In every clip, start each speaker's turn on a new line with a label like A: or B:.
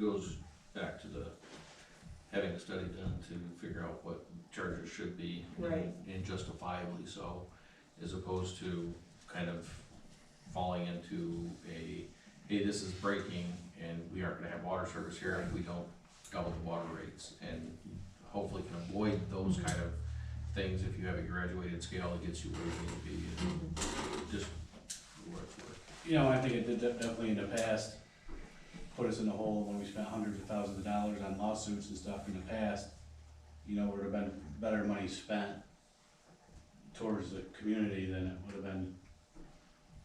A: goes back to the, having a study done to figure out what charges should be. and-
B: Right.
A: And justifiably so, as opposed to kind of falling into a, hey, this is breaking and we aren't gonna have water service here if we don't double the water rates. And hopefully can avoid those kind of things if you have a graduated scale that gets you where you need to be and just work for it.
C: You know, I think it did de- definitely in the past, put us in the hole when we spent hundreds of thousands of dollars on lawsuits and stuff in the past. You know, would have been better money spent towards the community than it would have been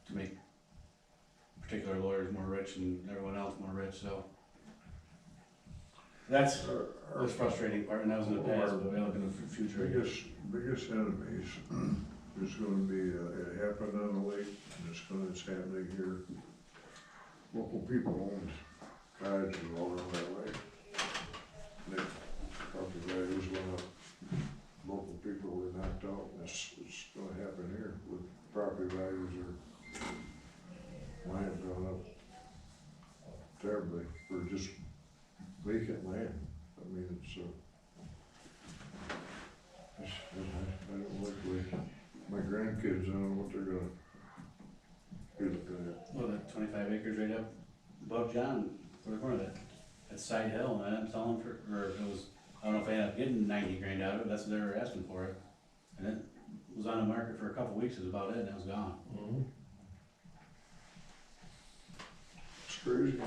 C: to make particular lawyers more rich and everyone else more rich, so. That's the frustrating part, and that was in the past, but we look in the fu- future.
D: Biggest, biggest enemies is gonna be, uh, it happened on the lake, and it's gonna, it's happening here. Local people owned cottages all around that lake. They, property values went up, local people were knocked out, and it's, it's gonna happen here with property values are, land gone up terribly, for just vacant land, I mean, it's, uh, I don't like the, my grandkids, I don't know what they're gonna, be looking at.
C: Well, that twenty-five acres right up above John, where the corner of that, that's side hill, and I'm selling for, or it was, I don't know if I ended up getting ninety grand out of it, that's what they were asking for it. And it was on the market for a couple weeks, is about it, and it was gone.
D: It's crazy.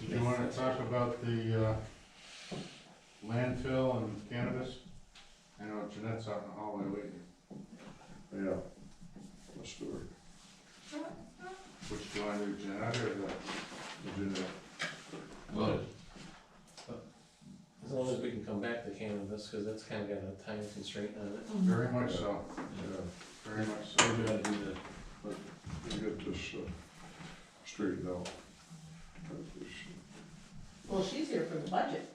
E: Did you wanna talk about the, uh, landfill and cannabis? I know Jeanette's out in the hallway waiting,
D: Yeah. That's the story.
E: which do you wanna do, Jeanette or the,
D: I did that.
A: Well,
F: As long as we can come back to cannabis, because that's kind of got a time constraint on it.
E: very much so,
D: Yeah,
E: very much
C: So
E: so.
C: we gotta do the,
D: we get this, uh, straightened out. That is,
B: Well, she's here for the budget.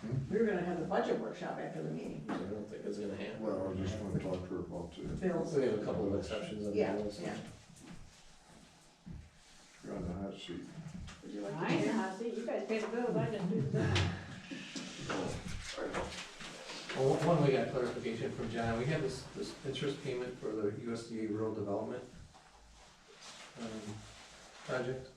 D: Hmm?
B: We were gonna have the budget workshop after the meeting.
F: I don't think it's gonna happen.
D: Well, I just wanna talk to her about the,
B: Bills,
F: We have a couple of exceptions on the
B: yeah,
F: rules.
B: yeah.
D: you're on the hot seat.
B: Would you like
G: I
B: to hear?
G: know, see, you guys pay the bills, I didn't do that.
F: Well, one, we got clarification from John, we had this, this interest payment for the USDA rural development um, project.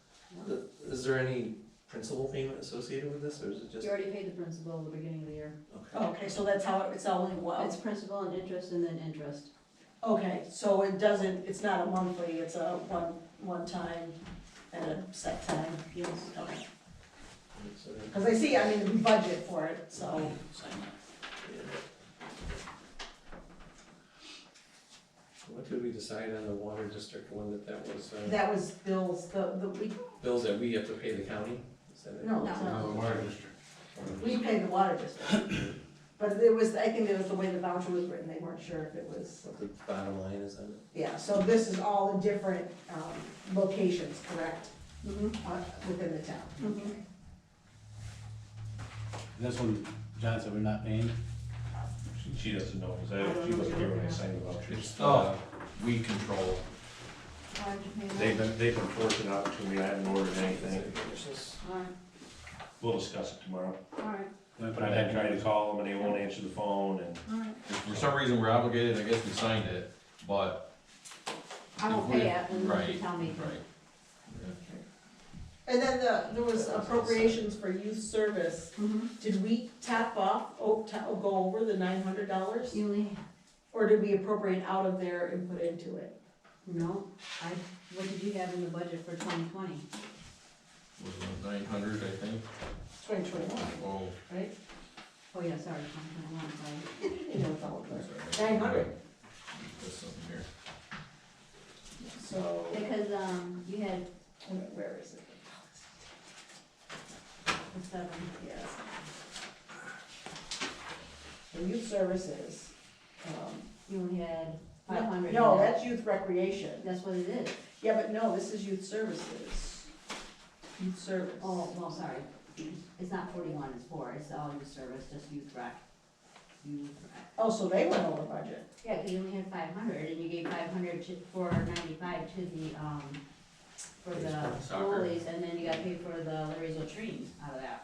F: The- Is there any principal payment associated with this, or is it just?
G: You already paid the principal at the beginning of the year.
F: Okay.
B: Oh, Okay, so that's how, it's only one,
G: Oh. It's principal and interest and then interest.
B: okay, so it doesn't, it's not a monthly, it's a one, one time and a set time? Yes.
F: So,
B: Cause I see, I mean, we budget for it, so.
F: yeah. What did we decide on the water district one that that was, uh,
B: That was Bill's, the, the, we,
F: bills that we have to pay the county? Is that it?
B: no, it's
E: Uh,
B: not.
E: The water district.
B: We paid the water district. But it was, I think it was the way the voucher was written, they weren't sure if it was,
F: What the bottom line is on it?
B: yeah, so this is all the different, um, locations, correct? Uh, Within the town.
C: this one, John said we're not paying,
H: She doesn't know, because
G: I don't
H: I, she
G: know
H: wasn't here when I
G: either.
H: signed the vouchers.
A: it's, uh, weed control.
G: Why'd you pay that?
H: They've been, they've been forcing out to me, I haven't ordered anything,
G: Alright,
H: we'll discuss it tomorrow.
G: alright,
H: But I've been trying to call them and they won't answer the phone and
G: alright.
A: If for some reason we're obligated, I guess we signed it, but,
G: I won't pay it unless you
A: right,
G: tell me.
A: right.
B: And then the, there was appropriations for youth service.
G: Mhm.
B: Did we tap off, oh, ta- oh, go over the nine hundred dollars?
G: You only,
B: Or did we appropriate out of there and put into it?
G: no, I, what did you have in the budget for twenty twenty?
A: Was it nine hundred, I think?
B: Twenty twenty-one,
A: Oh,
B: right?
G: Oh, yeah, sorry, twenty twenty-one, sorry.
B: You know, it's all
A: sorry.
B: there. Nine hundred,
A: There's something here.
B: so,
G: Because, um, you had
B: where is it?
G: the seven,
B: Yes. The youth services, um.
G: you only had
B: no-
G: five hundred.
B: No, that's youth recreation.
G: That's what it is.
B: Yeah, but no, this is youth services. Youth service.
G: Oh, well, sorry, it's not forty-one, it's four, it's all your service, just youth rec. Youth rec.
B: Oh, so they went over budget.
G: Yeah, 'cause you only had five hundred, and you gave five hundred to, for ninety-five to the, um, for the
A: Soccer.
G: goalies, and then you gotta pay for the Larry's latrine out of that.